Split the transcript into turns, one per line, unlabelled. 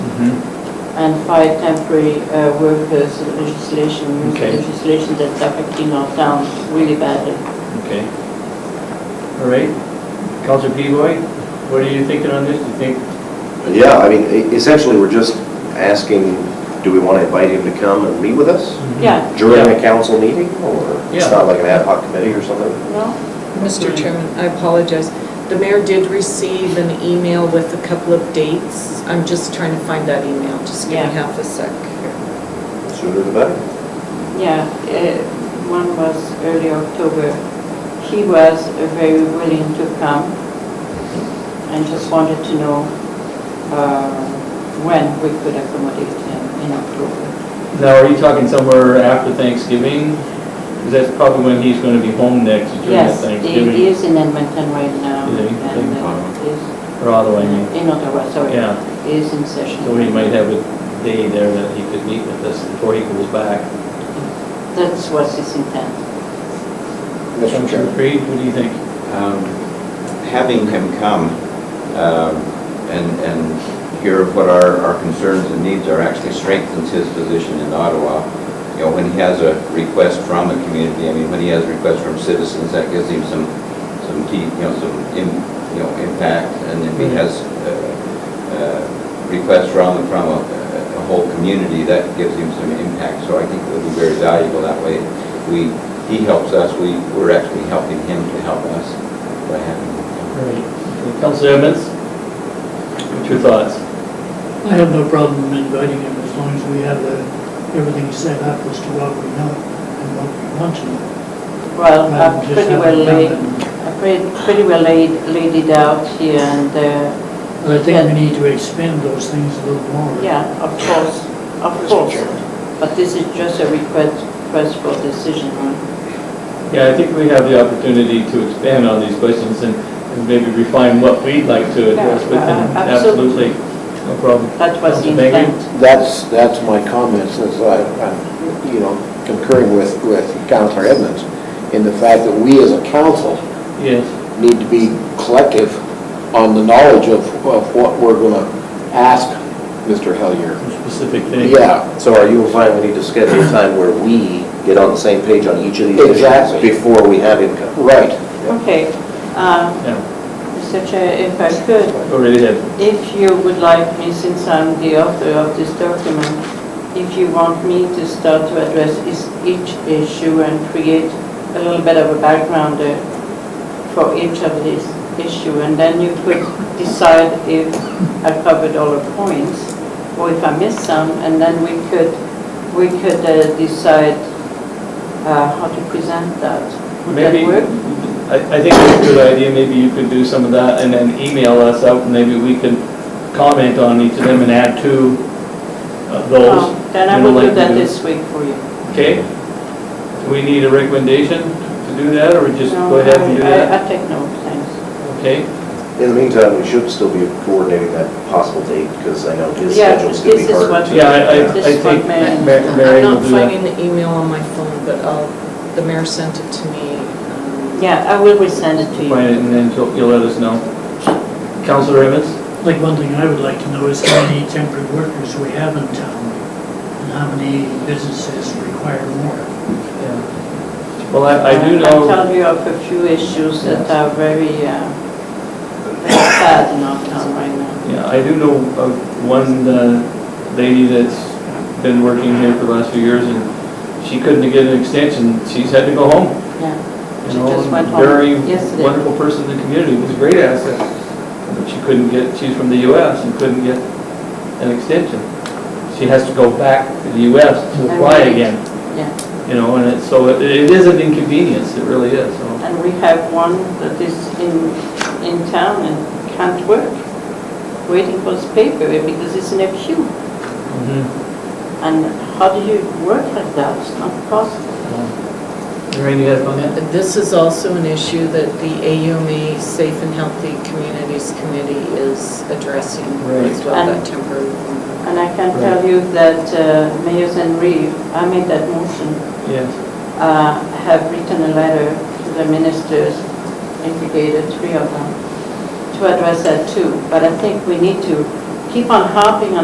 Mm-hmm.
and five temporary uh, workers legislation,
Okay.
legislation that's affecting our town really badly.
Okay. All right. Counselor Pivoy, what are you thinking on this? Do you think,
Yeah, I mean, e- essentially, we're just asking, do we want to invite him to come and meet with us
Mm-hmm.
Yeah,
during a council meeting? Or
Yeah.
it's not like an ad hoc committee or something?
no,
Mr. Chairman, I apologize. The mayor did receive an email with a couple of dates. I'm just trying to find that email, just give me
Yeah.
half a sec here.
Sooner the better.
yeah, uh, one was early October. He was uh, very willing to come and just wanted to know uh, when we could accommodate him in October.
now, are you talking somewhere after Thanksgiving? Because that's probably when he's going to be home next, during that
Yes, he
Thanksgiving.
he is in Edmonton right now.
Is he?
and, uh,
Or Ottawa, Oh, I mean.
is- In Ottawa, sorry.
Yeah,
He is in session.
so he might have a day there that he could meet with us before he goes back.
That's what's his intent.
Counselor Creed, what do you think?
Um, Having him come um, and, and hear what our, our concerns and needs are actually strengthens his position in Ottawa. You know, when he has a request from the community, I mean, when he has requests from citizens, that gives him some, some key, you know, some, im- you know, impact. And if he has uh, uh, requests from, from a, a whole community, that gives him some impact. So I think it'll be very valuable that way. We, he helps us, we, we're actually helping him to help us by having him.
All right. Counselor Evans, what's your thoughts?
I have no problem inviting him as long as we have the, everything set up as to what we know and what we want to know.
Well,
Rather
I've
than just
pretty
have
well
it
laid,
done.
I've pretty pretty well laid, laid it out here and, uh,
But I think we need to expand those things a little more.
yeah, of course, of course. But this is just a request, request for decision.
Yeah, I think we have the opportunity to expand on these questions and and maybe refine what we'd like to address, but then
Yeah, uh, absolutely.
absolutely, no problem.
That was the
Councillor Baker?
intent.
That's, that's my comments, is I, I'm, you know, concurring with, with Counselor Edmonds in the fact that we as a council
Yes,
need to be collective on the knowledge of, of what we're gonna ask Mr. Hellier.
some specific things.
Yeah,
So are you implying we need to schedule a time where we get on the same page on each of these issues?
Exactly.
Before we have him come?
right.
Okay, um,
Yeah,
Mr. Chair, if I could,
go right ahead.
If you would like me, since I'm the author of this document, if you want me to start to address is- each issue and create a little bit of a background uh, for each of these issue, and then you could decide if I covered all the points, or if I missed some, and then we could, we could uh, decide uh, how to present that. Would that
Maybe,
work?
I, I think it's a good idea, maybe you could do some of that and then email us out, and maybe we can comment on each of them and add to uh,
Oh,
those.
Then I
you know,
will do
like
that
we do.
this week for you.
Okay? Do we need a recommendation to do that, or just
No,
go ahead
I-
and do
I-
that?
I take notes, thanks.
Okay?
In the meantime, we should still be coordinating that possible date, because I know his
Yeah,
schedule's going to
this
be
is
hard
what-
to...
Yeah, I, I
This
I
is
think
what Mary-
Ma- Mary will
I'm not
do that.
finding the email on my phone, but I'll, the mayor sent it to me. um,
Yeah, I will resend it to you.
Find it and then you'll you'll let us know. Counselor Evans?
Like, one thing I would like to know is how many temporary workers we have in town and how many businesses require more.
Well, I, I do
I'll
know,
tell you of a few issues that are very, uh, very sad in our town right now.
yeah, I do know of one uh, lady that's been working here for the last few years and she couldn't get an extension. She's had to go home.
Yeah,
You
She
know,
just went home
Very
yesterday.
wonderful person in the community, was a great asset. But she couldn't get, she's from the US and couldn't get an extension. She has to go back to the US to apply
Alright.
again,
yeah.
you know, and it's, so it it is an inconvenience, it really is, so.
And we have one that is in, in town and can't work, waiting for his paper because it's in a queue.
Mhm.
And how do you work like that? It's not possible.
Lorraine, you have on that?
This is also an issue that the AUMA E Safe and Healthy Communities Committee is addressing as
Right.
well,
And-
that temporary. one.
And I can tell you that uh, Mayor Zenri, I made that motion
Yes.
uh, have written a letter to the ministers, indicated three of them, to address that too. But I think we need to keep on harping on